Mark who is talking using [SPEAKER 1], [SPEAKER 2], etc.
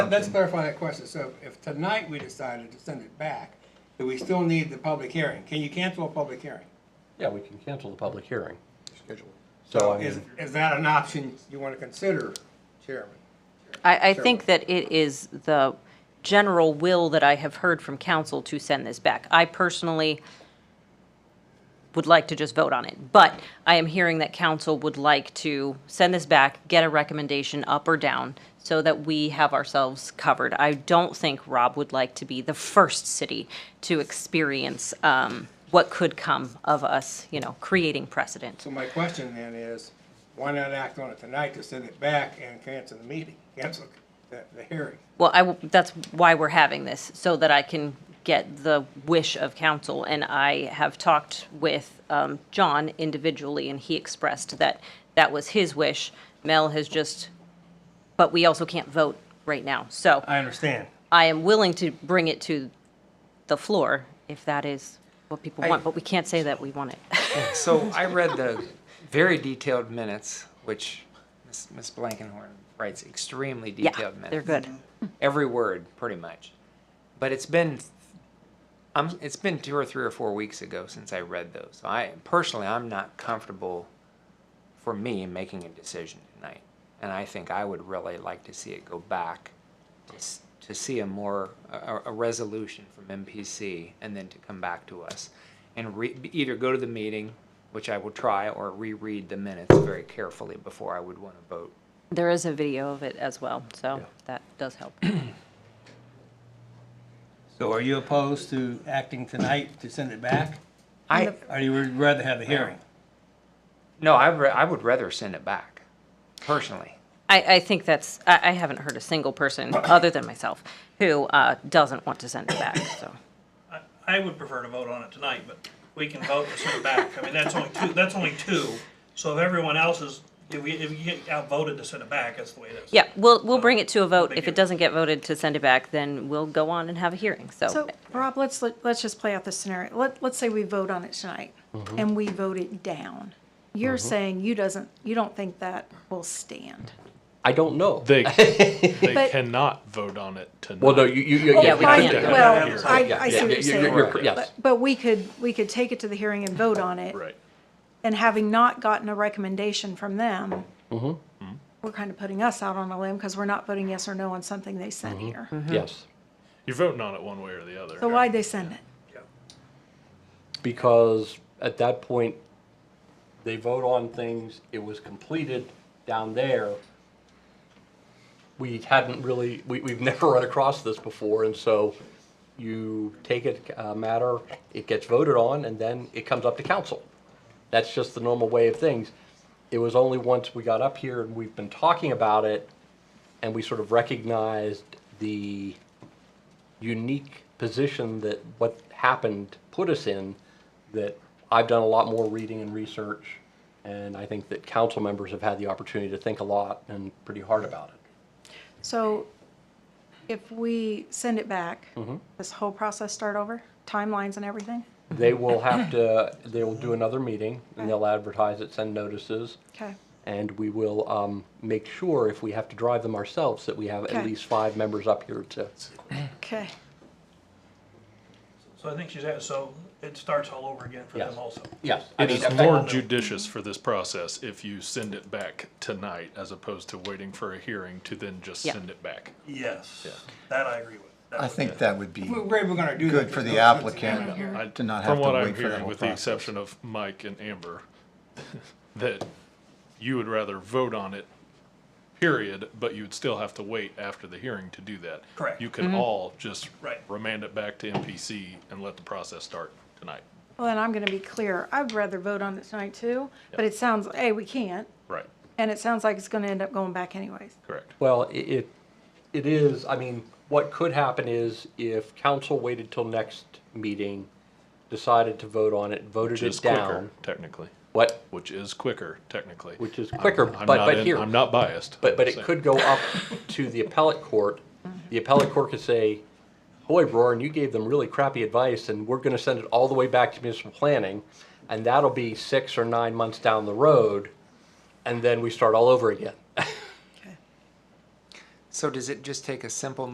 [SPEAKER 1] Let's clarify that question. So if tonight we decided to send it back, do we still need the public hearing? Can you cancel a public hearing?
[SPEAKER 2] Yeah, we can cancel the public hearing.
[SPEAKER 3] Schedule.
[SPEAKER 2] So I
[SPEAKER 1] Is,
[SPEAKER 2] mean,
[SPEAKER 1] is that an option you want to consider, Chairman?
[SPEAKER 4] I, I think that it is the general will that I have heard from council to send this back. I personally would like to just vote on it, but I am hearing that council would like to send this back, get a recommendation up or down, so that we have ourselves covered. I don't think Rob would like to be the first city to experience um, what could come of us, you know, creating precedent.
[SPEAKER 1] So my question then is, why not act on it tonight to send it back and cancel the meeting, cancel the, the hearing?
[SPEAKER 4] Well, I, w- that's why we're having this, so that I can get the wish of council. And I have talked with um, John individually, and he expressed that that was his wish. Mel has just, but we also can't vote right now. So
[SPEAKER 1] I understand.
[SPEAKER 4] I am willing to bring it to the floor if that is what people
[SPEAKER 3] I-
[SPEAKER 4] want, but we can't say that we want it.
[SPEAKER 3] So I read the very detailed minutes, which Ms. Ms. Blankenhorn writes extremely
[SPEAKER 4] Yeah,
[SPEAKER 3] detailed minutes.
[SPEAKER 4] they're good.
[SPEAKER 3] Every word, pretty much. But it's been, I'm, it's been two or three or four weeks ago since I read those. So I personally, I'm not comfortable for me making a decision tonight. And I think I would really like to see it go back to, s- to see a more, a, a resolution from MPC and then to come back to us. And re, either go to the meeting, which I will try, or reread the minutes very carefully before I would want to vote.
[SPEAKER 4] There is a video of it as well, so that does help.
[SPEAKER 1] So are you opposed to acting tonight to send it back?
[SPEAKER 3] I,
[SPEAKER 1] Or you would rather have a hearing?
[SPEAKER 3] no, I, re- I would rather send it back, personally.
[SPEAKER 4] I, I think that's, I, I haven't heard a single person, other than myself, who uh, doesn't want to send it back, so.
[SPEAKER 5] I- I would prefer to vote on it tonight, but we can vote and send it back. I mean, that's only two, that's only two. So if everyone else is, if we, if you get outvoted to send it back, that's the way it is.
[SPEAKER 4] Yeah, we'll, we'll bring it to a vote.
[SPEAKER 5] Thank
[SPEAKER 4] If
[SPEAKER 5] you.
[SPEAKER 4] it doesn't get voted to send it back, then we'll go on and have a hearing, so.
[SPEAKER 6] So, Rob, let's, let- let's just play out this scenario. Let, let's say we vote on it tonight and we vote it down. You're saying you doesn't, you don't think that will stand.
[SPEAKER 2] I don't know.
[SPEAKER 7] They they
[SPEAKER 6] But-
[SPEAKER 7] cannot vote on it tonight.
[SPEAKER 2] Well, no, you, you, you.
[SPEAKER 4] Yeah, we
[SPEAKER 2] you-
[SPEAKER 4] can't.
[SPEAKER 2] yeah, yeah,
[SPEAKER 6] Well,
[SPEAKER 2] yeah,
[SPEAKER 6] I,
[SPEAKER 2] yeah,
[SPEAKER 6] I
[SPEAKER 2] yeah,
[SPEAKER 6] see what you're
[SPEAKER 2] yeah, you're
[SPEAKER 6] saying.
[SPEAKER 2] cor- Yes,
[SPEAKER 6] But, but we could, we could take it to the hearing and vote on it.
[SPEAKER 7] right.
[SPEAKER 6] And having not gotten a recommendation from them, we're kind of putting us out on a limb because we're not voting yes or no on something they sent here.
[SPEAKER 2] yes,
[SPEAKER 7] You're voting on it one way or the other.
[SPEAKER 6] So why'd they send it?
[SPEAKER 2] because at that point, they vote on things, it was completed down there. We hadn't really, we, we've never run across this before, and so you take a, a matter, it gets voted on, and then it comes up to council. That's just the normal way of things. It was only once we got up here and we've been talking about it, and we sort of recognized the unique position that what happened put us in, that I've done a lot more reading and research, and I think that council members have had the opportunity to think a lot and pretty hard about it.
[SPEAKER 6] So if we send it back, this whole process start over, timelines and everything?
[SPEAKER 2] They will have to, they will do another meeting, and they'll advertise it, send notices,
[SPEAKER 6] Okay,
[SPEAKER 2] and we will um, make sure, if we have to drive them ourselves, that we have at
[SPEAKER 6] Okay.
[SPEAKER 2] least five members up here to,
[SPEAKER 6] okay.
[SPEAKER 5] So I think she's at, so it starts all over again for them
[SPEAKER 2] Yes.
[SPEAKER 5] also.
[SPEAKER 2] yes. I
[SPEAKER 7] It
[SPEAKER 2] mean,
[SPEAKER 7] is
[SPEAKER 2] if-
[SPEAKER 7] more judicious for this process if you send it back tonight as opposed to waiting for a hearing to then just
[SPEAKER 4] Yeah.
[SPEAKER 7] send it back.
[SPEAKER 5] Yes, that I agree with. That
[SPEAKER 8] I
[SPEAKER 5] would-
[SPEAKER 8] think that would be
[SPEAKER 1] We're, we're gonna do that.
[SPEAKER 8] good for
[SPEAKER 1] just
[SPEAKER 8] the
[SPEAKER 1] don't send it
[SPEAKER 8] applicant
[SPEAKER 1] back.
[SPEAKER 7] I-
[SPEAKER 8] to not
[SPEAKER 7] From
[SPEAKER 8] have to
[SPEAKER 7] what I'm
[SPEAKER 8] wait for that
[SPEAKER 7] hearing,
[SPEAKER 8] whole
[SPEAKER 7] with the
[SPEAKER 8] process.
[SPEAKER 7] exception of Mike and Amber, that you would rather vote on it, period, but you would still have to wait after the hearing to do that.
[SPEAKER 5] Correct.
[SPEAKER 7] You
[SPEAKER 6] Mm-hmm.
[SPEAKER 7] could all just
[SPEAKER 5] Right.
[SPEAKER 7] remand it back to MPC and let the process start tonight.
[SPEAKER 6] Well, then I'm gonna be clear. I'd rather vote on it tonight too, but it sounds, hey, we can't,
[SPEAKER 7] Right,
[SPEAKER 6] and it sounds like it's gonna end up going back anyways.
[SPEAKER 7] correct.
[SPEAKER 2] Well, i- it, it is, I mean, what could happen is if council waited till next meeting, decided to vote on it, voted
[SPEAKER 7] Which
[SPEAKER 2] it
[SPEAKER 7] is quicker,
[SPEAKER 2] down.
[SPEAKER 7] technically.
[SPEAKER 2] What,
[SPEAKER 7] Which is quicker, technically.
[SPEAKER 2] which is
[SPEAKER 7] I'm-
[SPEAKER 2] quicker,
[SPEAKER 7] I'm
[SPEAKER 2] but,
[SPEAKER 7] not
[SPEAKER 2] but
[SPEAKER 7] in-
[SPEAKER 2] here.
[SPEAKER 7] I'm not biased.
[SPEAKER 2] But, but it
[SPEAKER 7] Same.
[SPEAKER 2] could go up to the appellate court. The appellate court could say, boy, Roran, you gave them really crappy advice and we're gonna send it all the way back to municipal planning. And that'll be six or nine months down the road. And then we start all over again.
[SPEAKER 3] So does it just take a simple